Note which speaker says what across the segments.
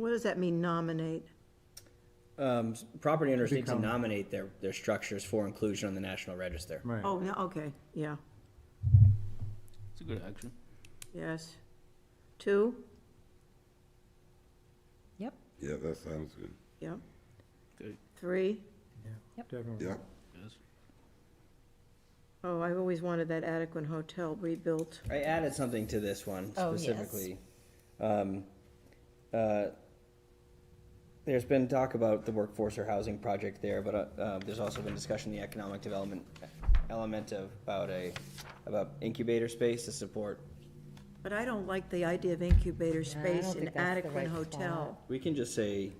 Speaker 1: does that mean nominate?
Speaker 2: Um, s- property owners need to
Speaker 3: Become-
Speaker 2: nominate their, their structures for inclusion on the National Register.
Speaker 3: Right.
Speaker 1: Oh, no, okay, yeah,
Speaker 4: It's a good action.
Speaker 1: yes. Two,
Speaker 5: Yep,
Speaker 6: Yeah, that sounds good.
Speaker 1: yep.
Speaker 4: Good,
Speaker 1: Three,
Speaker 5: Yep.
Speaker 3: Definitely.
Speaker 6: Yeah,
Speaker 4: yes.
Speaker 1: oh, I've always wanted that adequate hotel rebuilt.
Speaker 2: I added something to this one
Speaker 5: Oh, yes.
Speaker 2: specifically. Um, uh, There's been talk about the workforce or housing project there, but uh, uh, there's also been discussion, the economic development element of, about a, about incubator space to support.
Speaker 1: But I don't like the idea of incubator
Speaker 5: Yeah, I
Speaker 1: space
Speaker 5: don't
Speaker 1: in
Speaker 5: think that's the
Speaker 1: adequate
Speaker 5: right
Speaker 1: hotel.
Speaker 2: We can just say,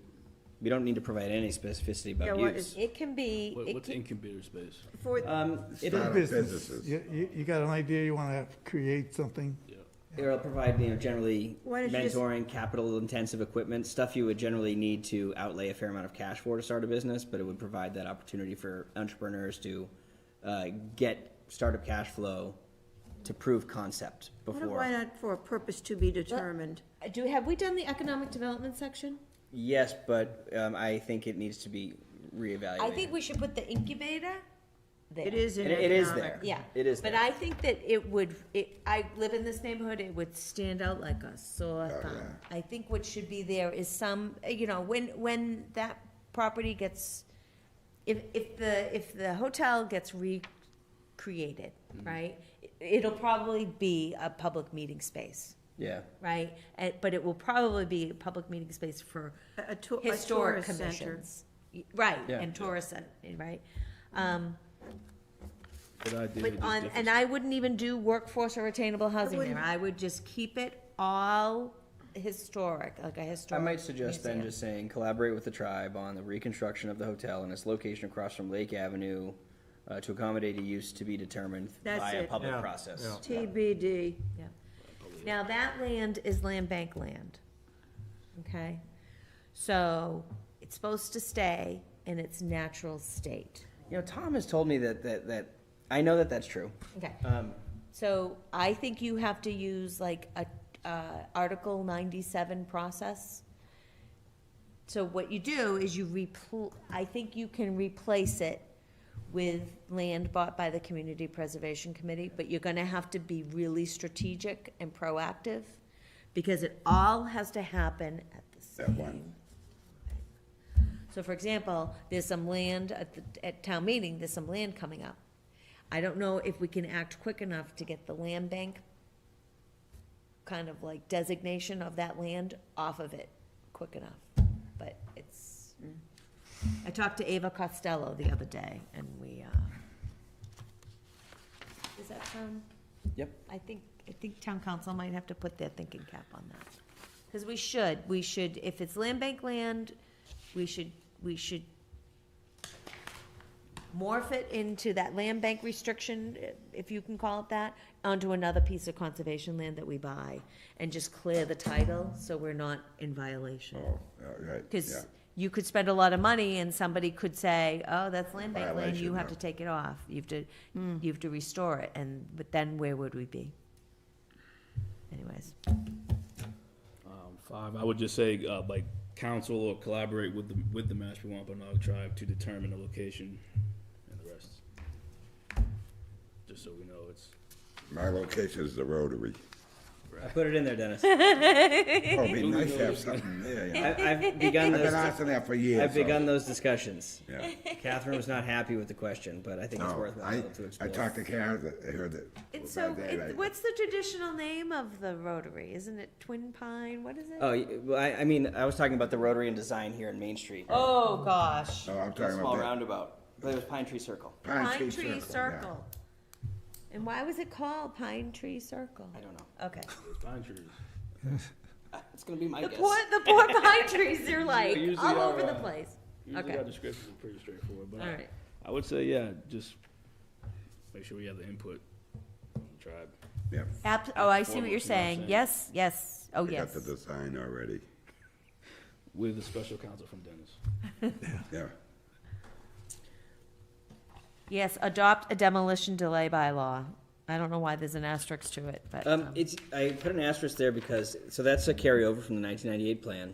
Speaker 2: we don't need to provide any specificity
Speaker 1: Yeah,
Speaker 2: about
Speaker 1: what
Speaker 2: use.
Speaker 5: it can be,
Speaker 4: What,
Speaker 5: it
Speaker 4: what's
Speaker 5: can,
Speaker 4: incubator space?
Speaker 1: For,
Speaker 2: Um, it-
Speaker 6: Start up
Speaker 3: Business,
Speaker 6: businesses.
Speaker 3: you, you, you got an idea, you wanna create something,
Speaker 2: It'll provide, you know, generally
Speaker 1: Why don't you just-
Speaker 2: mentoring, capital intensive equipment, stuff you would generally need to outlay a fair amount of cash for to start a business, but it would provide that opportunity for entrepreneurs to uh, get startup cash flow to prove concept
Speaker 1: what- why
Speaker 2: before.
Speaker 1: not for a purpose to be determined?
Speaker 5: do, have we done the economic development section?
Speaker 2: Yes, but um, I think it needs to be reevaluated.
Speaker 5: I think we should put the incubator there.
Speaker 1: It is in
Speaker 2: It- it is
Speaker 1: economic.
Speaker 2: there.
Speaker 5: Yeah.
Speaker 2: It is
Speaker 5: But
Speaker 2: there.
Speaker 5: I think that it would, it, I live in this neighborhood, it would stand out like a sore
Speaker 2: Oh,
Speaker 5: thumb. I think what should be there is some, uh, you know, when, when that property gets, if, if the, if the hotel gets recreated,
Speaker 2: Mm-hmm.
Speaker 5: right? it- It'll probably be a public meeting space,
Speaker 2: Yeah,
Speaker 5: right? And, but it will probably be a public meeting space for
Speaker 1: A- A tou- a
Speaker 5: historic
Speaker 1: tourist center.
Speaker 5: commissions. Y- Right,
Speaker 2: Yeah.
Speaker 5: and tourist, uh, right? Um,
Speaker 4: Good idea.
Speaker 5: but
Speaker 4: just
Speaker 5: on,
Speaker 4: different-
Speaker 5: and I wouldn't even do workforce or attainable housing there,
Speaker 1: wouldn't.
Speaker 5: I would just keep it all historic, like a
Speaker 2: I
Speaker 5: historic.
Speaker 2: might suggest then
Speaker 5: museum.
Speaker 2: just saying collaborate with the tribe on the reconstruction of the hotel and its location across from Lake Avenue uh, to accommodate a use to be determined
Speaker 1: That's
Speaker 2: by a
Speaker 1: it.
Speaker 2: public
Speaker 3: Yeah,
Speaker 2: process.
Speaker 3: yeah.
Speaker 1: TBD,
Speaker 5: Yeah. Now, that land is land bank land, okay? So, it's supposed to stay in its natural state,
Speaker 2: You know, Tom has told me that that that I know that that's true.
Speaker 5: okay?
Speaker 2: Um,
Speaker 5: So I think you have to use like a, uh, Article ninety-seven process. So what you do is you repl, I think you can replace it with land bought by the Community Preservation Committee, but you're gonna have to be really strategic and proactive, because it all has to happen at the
Speaker 6: At
Speaker 5: same.
Speaker 6: once.
Speaker 5: So for example, there's some land at the, at town meeting, there's some land coming up. I don't know if we can act quick enough to get the land bank kind of like designation of that land off of it quick enough, but it's. mm. I talked to Ava Costello the other day and we, uh, does that sound?
Speaker 2: Yep.
Speaker 5: I think, I think town council might have to put their thinking cap on that. Cause we should, we should, if it's land bank land, we should, we should morph it into that land bank restriction, if you can call it that, onto another piece of conservation land that we buy, and just clear the title, so we're not in violation.
Speaker 6: Oh, all right, yeah.
Speaker 5: Cause you could spend a lot of money and somebody could say, oh, that's land bank land, you
Speaker 6: Violation,
Speaker 5: have
Speaker 6: yeah.
Speaker 5: to take it off, you have to, you have to restore it, and, but then where would we be? Anyways,
Speaker 4: Um, Five, I would just say, uh, like, council or collaborate with the, with the Mashpee Wampanoag tribe to determine the location and the rest. Just so we know it's,
Speaker 6: My location is the Rotary.
Speaker 2: I put it in there, Dennis.
Speaker 6: Oh, it'd be nice to have something there, you know.
Speaker 2: I, I've begun
Speaker 6: I've been
Speaker 2: those.
Speaker 6: asking that for years.
Speaker 2: I've
Speaker 6: so-
Speaker 2: begun those discussions.
Speaker 6: Yeah.
Speaker 2: Catherine was not happy with the question, but I think it's
Speaker 6: No,
Speaker 2: worthwhile
Speaker 6: I,
Speaker 2: to
Speaker 6: I
Speaker 2: explore.
Speaker 6: talked to Karen, I heard that.
Speaker 5: and so,
Speaker 6: about that,
Speaker 5: it-
Speaker 6: I-
Speaker 5: what's the traditional name of the Rotary, isn't it Twin Pine, what is it?
Speaker 2: Oh, y- well, I, I mean, I was talking about the Rotary and Design here in Main Street.
Speaker 5: Oh, gosh.
Speaker 6: Oh, I'm
Speaker 2: The
Speaker 6: talking
Speaker 2: small
Speaker 6: about
Speaker 2: roundabout. There was Pine Tree Circle.
Speaker 6: that.
Speaker 5: Pine Tree
Speaker 6: yeah.
Speaker 5: Circle. And why was it called Pine Tree Circle?
Speaker 2: I don't know. Uh,
Speaker 5: Okay.
Speaker 4: it's pine trees.
Speaker 2: It's gonna be my
Speaker 5: The
Speaker 2: guess.
Speaker 5: poor, the poor pine trees, they're like
Speaker 4: Usually
Speaker 5: all
Speaker 4: our,
Speaker 5: over the
Speaker 4: uh,
Speaker 5: place.
Speaker 4: Usually
Speaker 5: Okay.
Speaker 4: our descriptions are pretty straightforward, but
Speaker 5: All right.
Speaker 4: I- I would say, yeah, just make sure we have the input from the tribe.
Speaker 6: Yep,
Speaker 5: Ab- oh, I
Speaker 4: Formal,
Speaker 5: see what you're
Speaker 4: you know what I'm
Speaker 5: saying.
Speaker 4: saying?
Speaker 5: Yes, yes, oh,
Speaker 6: I got
Speaker 5: yes.
Speaker 6: the design already,
Speaker 4: With a special counsel from Dennis.
Speaker 6: yeah.
Speaker 5: Yes, adopt a demolition delay bylaw. I don't know why there's an asterisk to it, but,
Speaker 2: Um,
Speaker 5: um,
Speaker 2: it's, I put an asterisk there because, so that's a carryover from the nineteen ninety-eight plan.